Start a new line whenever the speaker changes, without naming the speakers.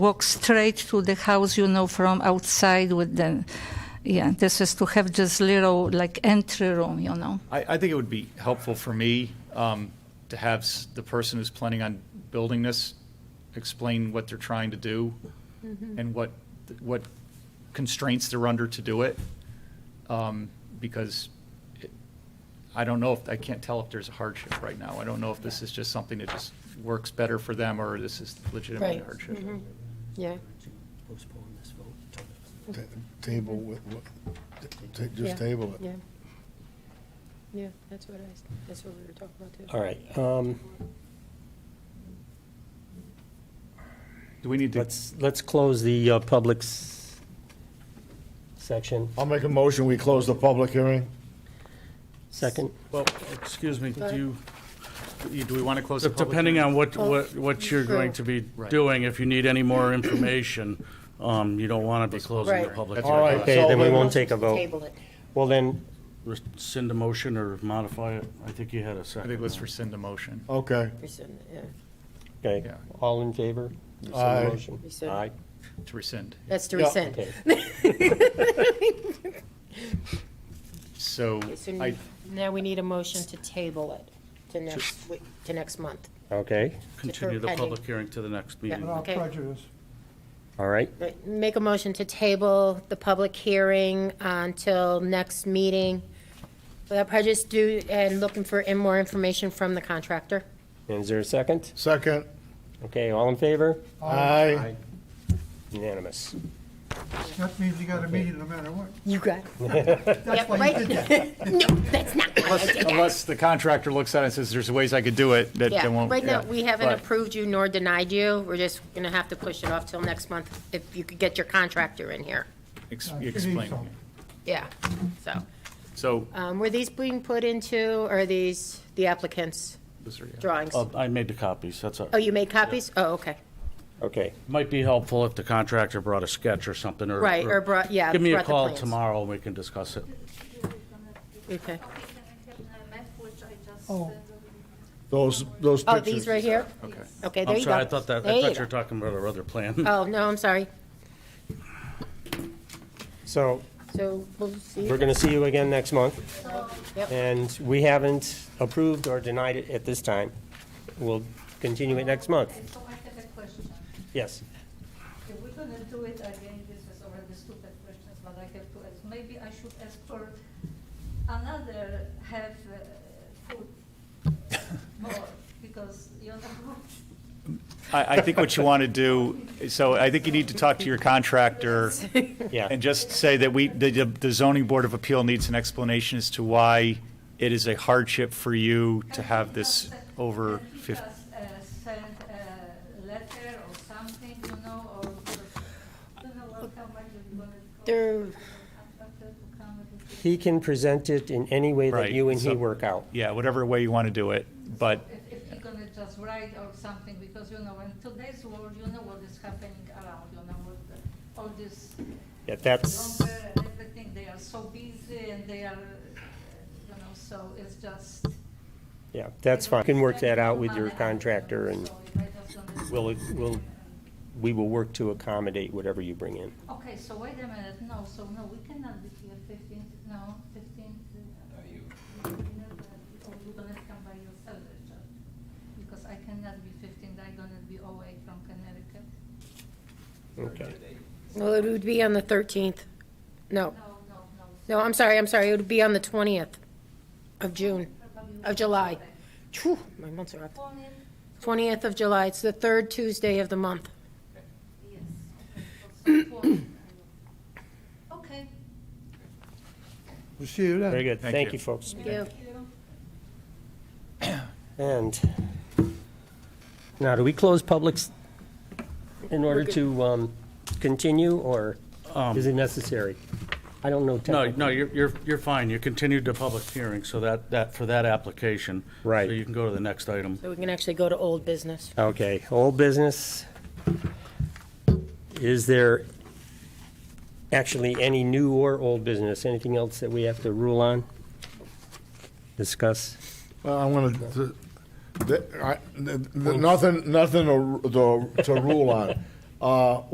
walk straight to the house, you know, from outside with the, yeah, this is to have just little like entry room, you know.
I, I think it would be helpful for me um, to have s- the person who's planning on building this explain what they're trying to do and what, what constraints they're under to do it. Um, Because it- I don't know if, I can't tell if there's a hardship right now. I don't know if this is just something that just works better for them or this is legitimately a
Right.
hardship.
Mm-hmm.
Yeah,
postpone this vote.
Ta- Table with, with- ta-
Yeah.
just table it.
yeah. Yeah, that's what I, s- that's what we were talking about too.
All right, um,
Do we need to,
let's, let's close the uh, public s- section.
I'll make a motion, we close the public hearing.
Second,
Well, excuse me, do you,
do we want to close the public?
depending
hearing?
on what, what,
Oh,
what you're going to be
Right.
doing, if you need any more information, um, you don't want to be closing the
Right.
public.
That's
All
right.
right.
okay,
So
then we
then-
won't take a vote.
it.
Well, then,
Rescind the motion or modify it? I think you had a
I
second.
think let's rescind the motion.
Okay,
Rescind it, yeah.
okay,
Yeah.
all in favor? Rescind the
Aye.
motion.
Rescind.
Aye,
To rescind.
That's to
Yeah.
rescind.
okay.
So
So
I,
now we need a motion to table it to next, week- to next month.
Okay,
Continue the
pending.
public hearing to the next meeting.
Yeah. Oh. Okay.
all right,
Right, Make a motion to table the public hearing until next meeting without prejudice due, and looking for in- more information from the contractor.
and is there a second?
second,
Okay, all in favor?
aye.
Unanimous.
That means you got a meeting no matter what.
You got it. Yep,
why you
right? No, that's not why I did that.
Unless the contractor looks at it and says, there's ways I could do it, that they
Yeah,
won't.
right now,
yeah.
we haven't
But-
approved you nor denied you. We're just going to have to push it off till next month if you could get your contractor in here.
Ex-
Uh, it is
Explain.
something.
Yeah, so.
So,
um, Were these being put into, or are these the applicant's drawings?
Oh.
Uh, I made the copies, that's all.
Oh, you made copies? Oh, okay.
Okay,
Might be helpful if the contractor brought a sketch or something, or.
Right, or brought- yeah,
Give me a
brought the
call
plans.
tomorrow, and we can discuss it.
Okay.
Oh.
Those, those
Oh,
pictures.
these right here?
okay.
Okay, there
I'm
you go.
sorry, I thought that,
There
I
you
thought you were
go.
talking about our other plan.
Oh, no, I'm sorry.
so
So we'll see.
we're gonna see you again next month,
Yep.
and we haven't approved or denied it at this time. We'll continue it next month.
So I have a question.
Yes,
If we're gonna do it again, this is already stupid questions, but I have to ask. Maybe I should ask for another half uh, food more, because you know.
I, I think what you want to do, so I think you need to talk to your contractor
yeah,
and just say that we, the, the zoning board of appeal needs an explanation as to why it is a hardship for you to have this over
Can he
fifty.
just, uh, Send a letter or something, you know, or, I don't know what, how much it's gonna cost.
There-
Contractor to come and do it.
he can present it in any way that
Right,
you and he
so-
work out.
Yeah, whatever way you want to do it, but
If, if you're gonna just write or something, because you know, in today's world, you know what is happening around, you know, with the- all this
Yeah, that's,
longer and everything, they are so busy and they are, uh, you know, so it's just.
yeah, that's fine. You can work that out with your contractor and
So if I just gonna-
we'll, we'll, we will work to accommodate whatever you bring in.
Okay, so wait a minute, no, so no, we cannot be here fifteenth, no, fifteenth. Are you? Or you're gonna come by yourself, Richard, because I cannot be fifteenth, I'm gonna be away from Connecticut.
Okay.
Well, it would be on the 13th. No,
No, no, no,
no, I'm sorry, I'm sorry. It would be on the 20th of June, of July. Phew, my months are up. 20th of July. It's the third Tuesday of the month.
Okay.
We'll see you then.
Very good.
Thank
Thank
you.
you, folks.
Yeah.
And now, do we close publics in order to um, continue, or
Um,
is it necessary? I don't know.
No,
technically.
no, you're, you're, you're fine. You continued the public hearing, so that, that, for that application.
Right.
So you can go to the next item.
So we can actually go to old business.
Okay, old business. Is there actually any new or old business? Anything else that we have to rule on? Discuss?
Well, I want to, nothing, nothing to to rule on. Uh,